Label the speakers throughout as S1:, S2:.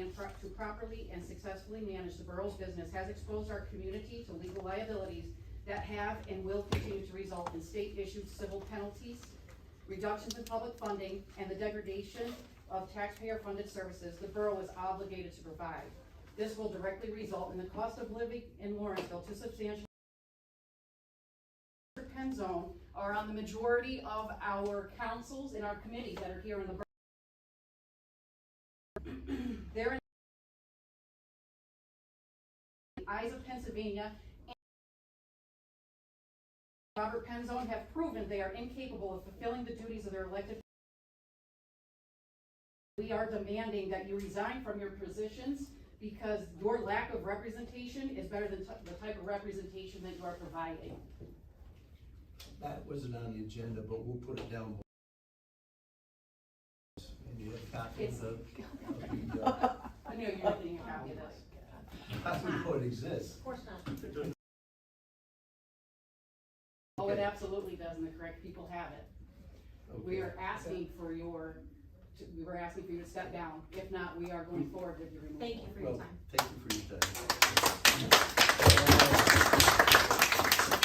S1: and pro- to properly and successfully manage the borough's business has exposed our community to legal liabilities that have and will continue to result in state-issued civil penalties, reductions in public funding, and the degradation of taxpayer-funded services the borough is obligated to provide. This will directly result in the cost of living in Lawrenceville to substantially Mr. Penzone are on the majority of our councils and our committees that are here in the borough. They're in the eyes of Pennsylvania and Robert Penzone have proven they are incapable of fulfilling the duties of their elected. We are demanding that you resign from your positions because your lack of representation is better than t- the type of representation that you are providing.
S2: That wasn't on the agenda, but we'll put it down. And you have copies of, of the, uh,
S1: I know you're getting a copy of this.
S2: that's before it exists.
S3: Of course not.
S1: Oh, it absolutely does, and the correct people have it. We are asking for your, we were asking for you to step down. If not, we are going forward with your removal.
S3: Thank you for your
S2: Mm. Well,
S3: time.
S2: thank you for your time.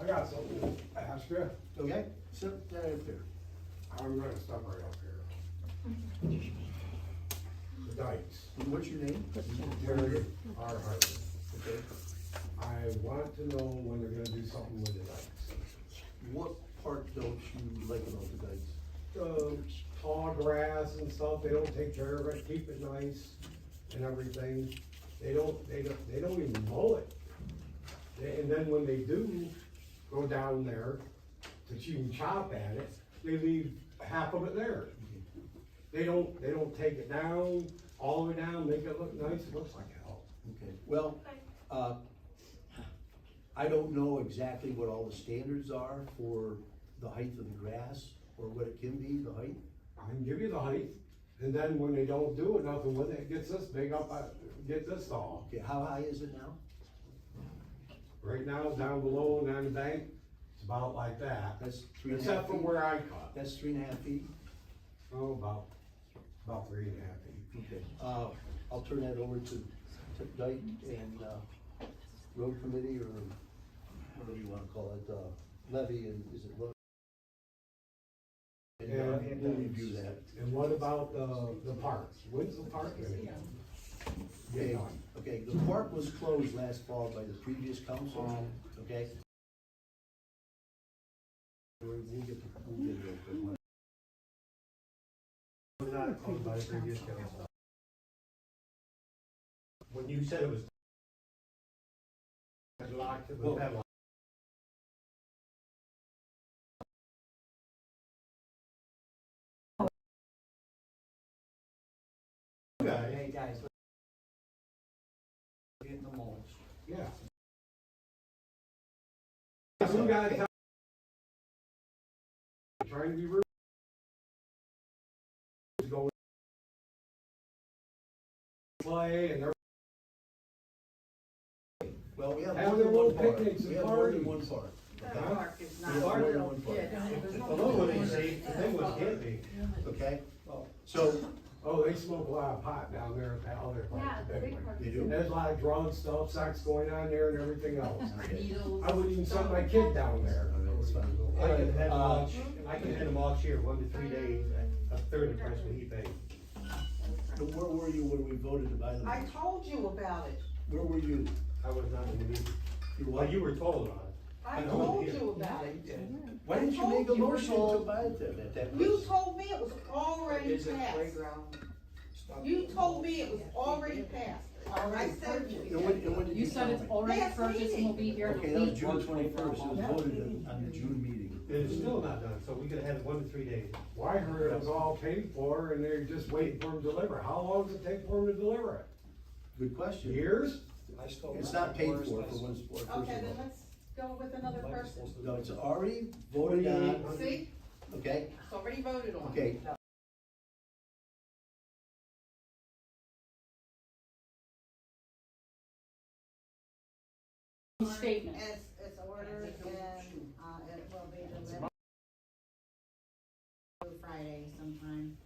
S4: I got something to ask you.
S2: Okay, so, that up there.
S4: I'm gonna stop right up here. The dikes,
S2: What's your name?
S4: Jared R. Harvey.
S2: Okay.
S4: I want to know when they're gonna do something with the dikes.
S2: What part don't you like about the dikes?
S4: The um, tall grass and stuff, they don't take care of it, keep it nice and everything. They don't, they don't, they don't even mow it. They- And then when they do go down there to chew and chop at it, they leave half of it there. They don't, they don't take it down, all the way down, make it look nice, it looks like hell.
S2: Okay, well, uh, I don't know exactly what all the standards are for the height of the grass or what it can be, the height.
S4: I can give you the height, and then when they don't do it, nothing, when it gets this big up, I get this tall.
S2: Okay, how high is it now?
S4: Right now, down below and on the bank, it's about like that,
S2: That's three and a half
S4: except for
S2: feet?
S4: where I cut.
S2: That's three and a half feet?
S4: Oh, about, about three and a half feet.
S2: Okay, uh, I'll turn that over to, to Dyke and, uh, Road Committee or whatever you wanna call it, uh, levy and, is it levy? And uh,
S4: Yeah.
S2: we'll review that.
S4: And what about the, the parks? When's the park gonna get get
S2: Okay,
S4: done?
S2: okay, the park was closed last fall by the previous council, okay? We'll we'll get, we'll get it open.
S5: was not called by the previous council. When you said it was locked, it was padlocked. Okay,
S6: Hey, guys. let's Get in the mulch.
S4: Yeah. Some guy tell- Trying to be rude. Is Going. Play and they're
S2: Well, we have
S4: Have
S2: more
S4: their
S2: than
S4: little
S2: one park,
S4: picnics and
S2: we have more than one
S4: parties.
S2: park.
S1: The park is not.
S2: We have more than one park.
S5: although they say, the thing was hippie,
S2: Okay, so,
S4: Oh, they smoke a lot of pot down there at that other place.
S3: Yeah, the big
S2: you
S3: party.
S2: do,
S4: There's a lot of drug stuff, sex going on there and everything else.
S1: Needles.
S4: I wouldn't even send my kid down there.
S2: All right, it's fine.
S5: I can head them
S2: Uh,
S5: off, I can head them off here, one to three days, at a third of the price of heat bank.
S2: so where were you when we voted to buy the
S7: I
S2: mulch?
S7: told you about it.
S2: Where were you?
S5: I was not in the meeting,
S2: You
S5: well,
S2: what?
S5: you were told on it,
S7: I
S5: I know
S7: told
S5: it is.
S7: you about it.
S2: Why didn't you
S7: I
S2: make a
S7: told you
S2: motion
S7: we're
S2: to
S7: told-
S2: buy it then at that
S7: You
S2: price?
S7: told me it was already passed. You told me it was already passed. I said
S2: And
S7: you.
S2: when, and when did
S1: You
S2: you
S1: said
S2: tell me?
S1: it's already
S7: Last
S1: purchased and will be here in a
S2: Okay, that was
S1: week.
S2: June twenty-first, it was voted on- on the June meeting.
S5: it is still not done, so we could have had one to three days.
S4: Well, I heard it was all paid for and they're just waiting for them to deliver. How long does it take for them to deliver it?
S2: Good question.
S4: Years?
S2: It's not paid for, for one sport, first of
S7: Okay, then
S2: all.
S7: let's go with another person.
S2: No, it's already voted on,
S7: See,
S2: okay,
S7: it's already voted on.
S2: okay.
S1: Statement.
S7: It's, it's ordered and, uh, it will be delivered Friday sometime.